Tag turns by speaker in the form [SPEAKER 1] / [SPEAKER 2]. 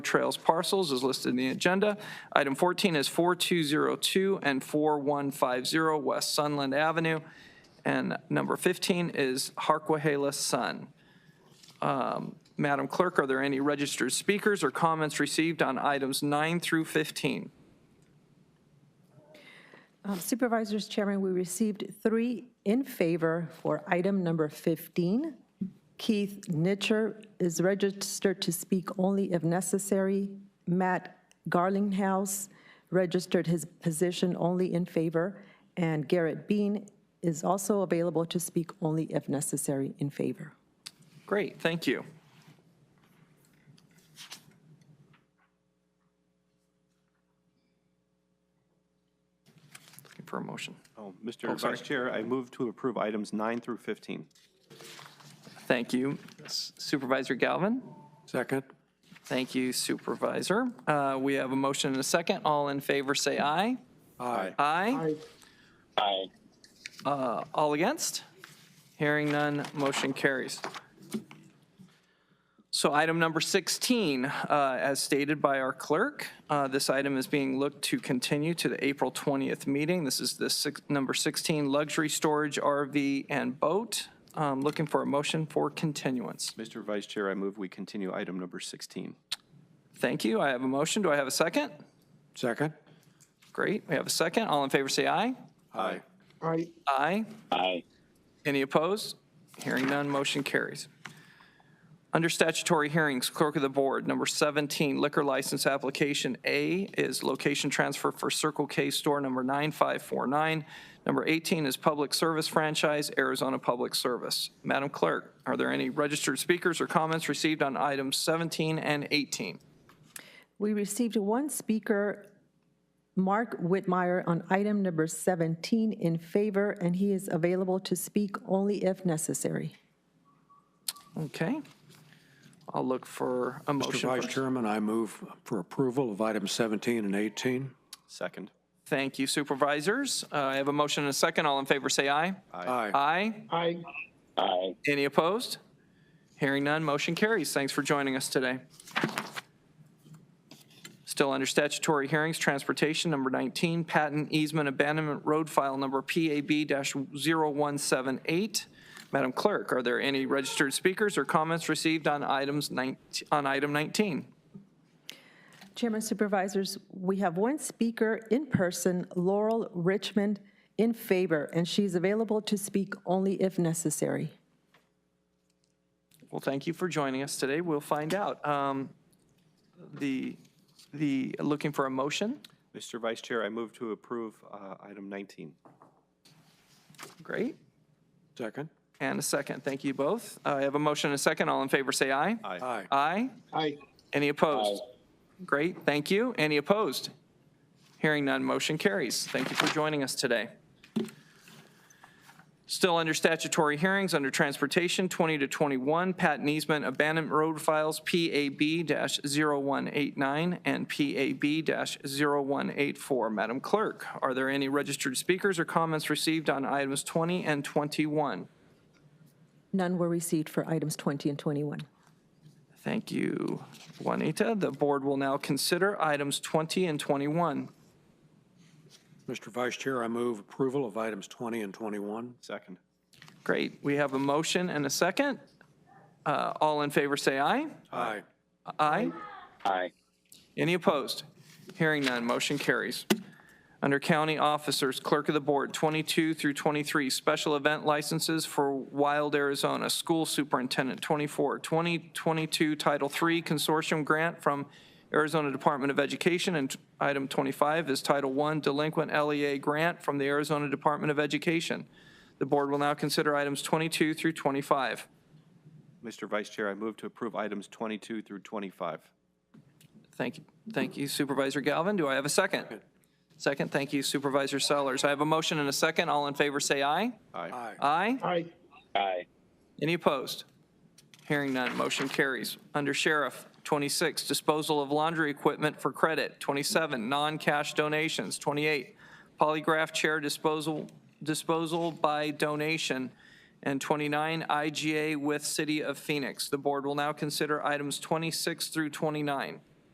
[SPEAKER 1] Trails parcels is listed in the agenda. Item 14 is 4202 and 4150 West Sunland Avenue. And number 15 is Harquahela Sun. Um, Madam Clerk, are there any registered speakers or comments received on items 9 through 15?
[SPEAKER 2] Um, Supervisors, Chairman, we received three in favor for item number 15. Keith Nitcher is registered to speak only if necessary. Matt Garlinghouse registered his position only in favor. And Garrett Bean is also available to speak only if necessary in favor.
[SPEAKER 1] Great, thank you. Looking for a motion.
[SPEAKER 3] Oh,
[SPEAKER 1] Oh,
[SPEAKER 3] Mr.
[SPEAKER 1] sorry.
[SPEAKER 3] Vice Chair, I move to approve items 9 through 15.
[SPEAKER 1] Thank you. Supervisor Galvin?
[SPEAKER 4] Second.
[SPEAKER 1] Thank you, Supervisor. Uh, We have a motion and a second. All in favor, say aye.
[SPEAKER 4] Aye.
[SPEAKER 1] Aye. Aye. All against? Hearing none, motion carries. So item number 16, uh, as stated by our clerk, uh, this item is being looked to continue to the April 20th meeting. This is the six- number 16 luxury storage RV and boat. Um, Looking for a motion for continuance.
[SPEAKER 3] Mr. Vice Chair, I move we continue item number 16.
[SPEAKER 1] Thank you. I have a motion. Do I have a second?
[SPEAKER 4] Second.
[SPEAKER 1] Great, we have a second. All in favor, say aye.
[SPEAKER 4] Aye.
[SPEAKER 1] Aye. Aye. Any opposed? Hearing none, motion carries. Under statutory hearings, Clerk of the Board, number 17, liquor license application A is location transfer for Circle K store number 9549. Number 18 is public service franchise, Arizona Public Service. Madam Clerk, are there any registered speakers or comments received on items 17 and 18?
[SPEAKER 2] We received one speaker, Mark Whitmire, on item number 17 in favor, and he is available to speak only if necessary.
[SPEAKER 1] Okay. I'll look for a
[SPEAKER 4] Mr.
[SPEAKER 1] motion.
[SPEAKER 4] Vice Chairman, I move for approval of items 17 and 18.
[SPEAKER 3] Second.
[SPEAKER 1] Thank you, supervisors. Uh, I have a motion and a second. All in favor, say aye.
[SPEAKER 4] Aye.
[SPEAKER 1] Aye. Aye. Aye. Any opposed? Hearing none, motion carries. Thanks for joining us today. Still under statutory hearings, transportation number 19, patent easement abandonment road file number PAB-0178. Madam Clerk, are there any registered speakers or comments received on items 19, on item 19?
[SPEAKER 2] Chairman Supervisors, we have one speaker in person, Laurel Richmond, in favor, and she's available to speak only if necessary.
[SPEAKER 1] Well, thank you for joining us today. We'll find out. Um, The, the, looking for a motion?
[SPEAKER 3] Mr. Vice Chair, I move to approve uh, item 19.
[SPEAKER 1] Great.
[SPEAKER 4] Second.
[SPEAKER 1] And a second. Thank you both. Uh, I have a motion and a second. All in favor, say aye.
[SPEAKER 4] Aye.
[SPEAKER 1] Aye? Aye. Any opposed? Great, thank you. Any opposed? Hearing none, motion carries. Thank you for joining us today. Still under statutory hearings, under transportation, 20 to 21, patent easement abandonment road files, PAB-0189 and PAB-0184. Madam Clerk, are there any registered speakers or comments received on items 20 and 21?
[SPEAKER 2] None were received for items 20 and 21.
[SPEAKER 1] Thank you, Juanita. The board will now consider items 20 and 21.
[SPEAKER 4] Mr. Vice Chair, I move approval of items 20 and 21.
[SPEAKER 3] Second.
[SPEAKER 1] Great, we have a motion and a second. Uh, All in favor, say aye.
[SPEAKER 4] Aye.
[SPEAKER 1] Aye? Aye. Any opposed? Hearing none, motion carries. Under County Officers, Clerk of the Board, 22 through 23, Special Event Licenses for Wild Arizona, School Superintendent, 24, 2022 Title III Consortium Grant from Arizona Department of Education, and item 25 is Title I Delinquent LEA Grant from the Arizona Department of Education. The Board will now consider items 22 through 25.
[SPEAKER 3] Mr. Vice Chair, I move to approve items 22 through 25.
[SPEAKER 1] Thank you, thank you Supervisor Galvin. Do I have a second? Second, thank you Supervisor Sellers. I have a motion and a second. All in favor, say aye.
[SPEAKER 3] Aye.
[SPEAKER 1] Aye? Aye. Aye. Any opposed? Hearing none, motion carries. Under Sheriff, 26, disposal of laundry equipment for credit. 27, non-cash donations. 28, polygraph chair disposal, disposal by donation. And 29, IGA with City of Phoenix. The board will now consider items 26 through 29.